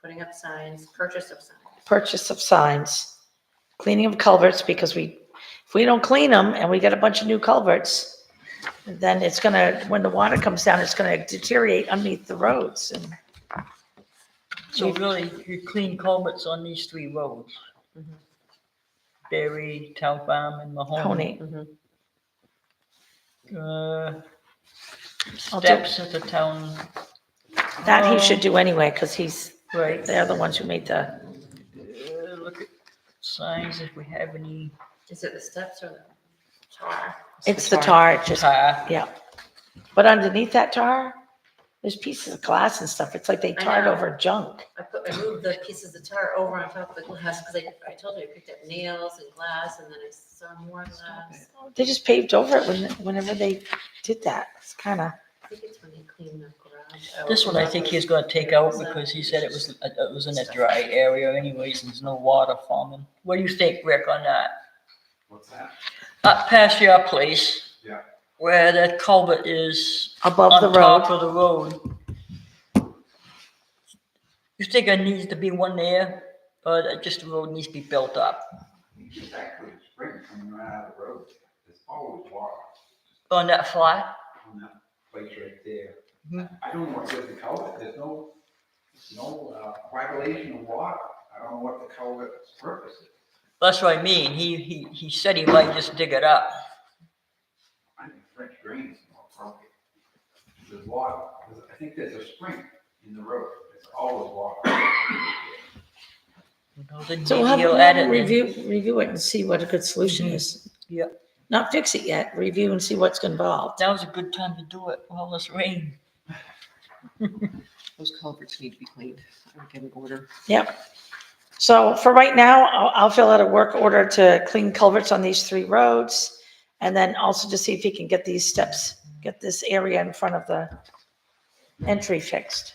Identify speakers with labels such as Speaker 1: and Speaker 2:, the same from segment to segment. Speaker 1: putting up signs, purchase of signs.
Speaker 2: purchase of signs, cleaning of culverts, because we, if we don't clean them and we get a bunch of new culverts, then it's gonna, when the water comes down, it's gonna deteriorate underneath the roads and
Speaker 3: So really, you clean culverts on these three roads.
Speaker 2: Mm-hmm.
Speaker 1: Mhm.
Speaker 3: Berry, Town Farm and Mahoney.
Speaker 2: pony.
Speaker 3: Uh,
Speaker 2: I'll do-
Speaker 3: Steps at the town,
Speaker 2: That he should do anyway, because he's,
Speaker 3: right,
Speaker 2: they're the ones who made the,
Speaker 3: uh, look at signs if we have any
Speaker 1: Is it the steps or the tar?
Speaker 2: it's the tar, just,
Speaker 3: tar.
Speaker 2: yeah. But underneath that tar, there's pieces of glass and stuff. It's like they
Speaker 1: I
Speaker 2: tarred
Speaker 1: know.
Speaker 2: over junk.
Speaker 1: I put, I moved the pieces of tar over on top of the glass, because I, I told you I picked up nails and glass, and then I saw more glass.
Speaker 2: They just paved over it when, whenever they did that. It's kind of,
Speaker 1: I think it's when they clean the garage. out.
Speaker 3: This one I think he's gonna take out because he said it was, uh, it was in a dry area anyways, and there's no water forming. What do you think, Rick, on that?
Speaker 4: What's that?
Speaker 3: Up past your place.
Speaker 4: Yeah.
Speaker 3: Where that culvert is
Speaker 2: above the
Speaker 3: on top
Speaker 2: road.
Speaker 3: of the road. You think there needs to be one there, or that just the road needs to be built up?
Speaker 4: It's actually a spring coming right out of the road. There's always water
Speaker 3: On that flat?
Speaker 4: on that place right there.
Speaker 3: Mhm.
Speaker 4: I don't know what the culvert, there's no, no uh, coagulation of water. I don't know what the culvert's purpose is.
Speaker 3: That's what I mean, he, he, he said he might just dig it up.
Speaker 4: I think French drain is more appropriate. There's water, There's- I think there's a spring in the road. There's always water.
Speaker 3: You know, then
Speaker 2: So
Speaker 3: maybe
Speaker 2: have
Speaker 3: he'll add
Speaker 2: them
Speaker 3: it in.
Speaker 2: review, review it and see what a good solution is.
Speaker 3: Yep.
Speaker 2: Not fix it yet, review and see what's involved.
Speaker 3: Now's a good time to do it, while this rain.
Speaker 5: Those culverts need to be cleaned. I would get an order.
Speaker 2: Yep. So for right now, I'll, I'll fill out a work order to clean culverts on these three roads. And then also to see if he can get these steps, get this area in front of the entry fixed,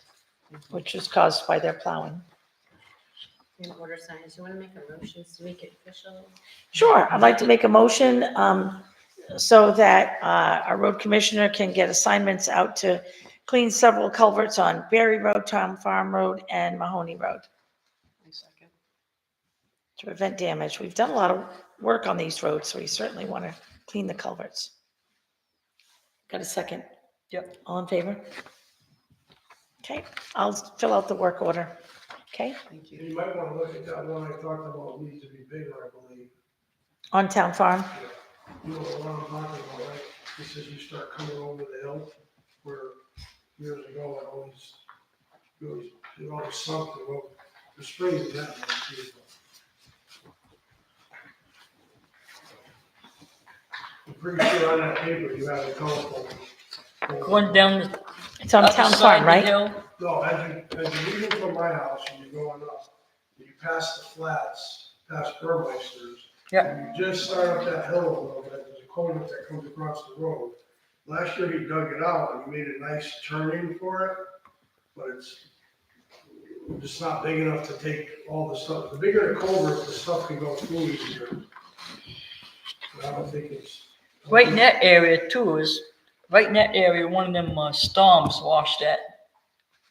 Speaker 2: which was caused by their plowing.
Speaker 1: And order signs, you wanna make a motion to make it official?
Speaker 2: Sure, I'd like to make a motion, um, so that, uh, our road commissioner can get assignments out to clean several culverts on Berry Road, Town Farm Road, and Mahoney Road to prevent damage. We've done a lot of work on these roads, so we certainly want to clean the culverts. Got a second?
Speaker 3: Yep.
Speaker 2: All in favor? Okay, I'll fill out the work order, okay,
Speaker 5: Thank you.
Speaker 6: You might want to look at that one I talked about, needs to be bigger, I believe.
Speaker 2: on Town Farm.
Speaker 6: You know what I'm talking about, right? This is you start coming over the hill where years ago it always, it always, it always sunk, the road. the spring is that one, too. I'm pretty sure on that paper you have a telephone.
Speaker 3: One down the.
Speaker 2: It's on
Speaker 3: up the
Speaker 2: Town
Speaker 3: side of
Speaker 2: Farm,
Speaker 3: the
Speaker 2: right?
Speaker 3: hill.
Speaker 6: No, as you, as you're leaving from my house and you're going up, you pass the flats, past Burmeister's.
Speaker 3: Yeah.
Speaker 6: and You just start up that hill a little bit, there's a culvert that comes across the road. Last year he dug it out and made a nice turning for it, but it's just not big enough to take all the stuff. The bigger the culvert, the stuff can go through easier. But I don't think it's.
Speaker 3: Right in that area too is, right in that area, one of them uh, storms washed that,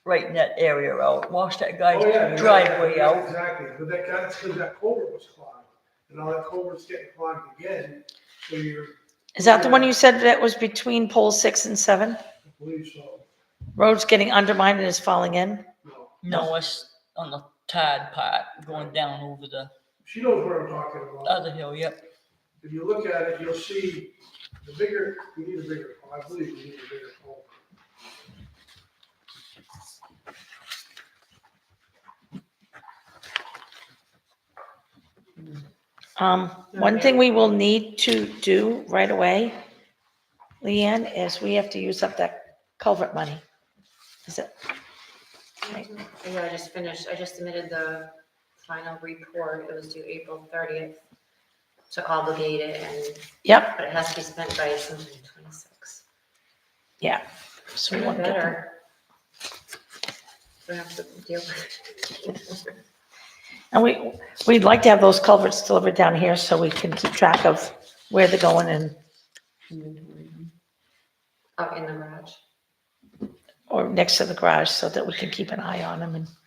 Speaker 3: right in that area out, washed that
Speaker 6: Oh, yeah, yeah,
Speaker 3: guy's driveway
Speaker 6: yeah,
Speaker 3: out.
Speaker 6: Exactly, but that, that's because that culvert was clogged, and now that culvert's getting clogged again, so you're,
Speaker 2: Is that the one you said that was between pole six and seven?
Speaker 6: I believe so,
Speaker 2: Road's getting undermined and is falling in?
Speaker 6: no.
Speaker 3: No, it's on the tide part going down over the
Speaker 6: She knows what I'm talking about.
Speaker 3: other hill, yep.
Speaker 6: If you look at it, you'll see the bigger, we need a bigger, I believe we need a bigger culvert.
Speaker 2: Um, one thing we will need to do right away, Leanne, is we have to use up that culvert money. Is it, Right.
Speaker 1: Yeah, I just finished, I just submitted the final report, it was due April thirtieth to obligate it, and,
Speaker 2: yep,
Speaker 1: but it has to be spent by sometime twenty-six.
Speaker 2: yeah. So we
Speaker 1: Even
Speaker 2: want to get them.
Speaker 1: Better. Don't have to deal with it.
Speaker 2: And we, we'd like to have those culverts delivered down here so we can keep track of where they're going and,
Speaker 5: Inventory.
Speaker 1: out Oh, in the garage.
Speaker 2: or next to the garage so that we can keep an eye on them and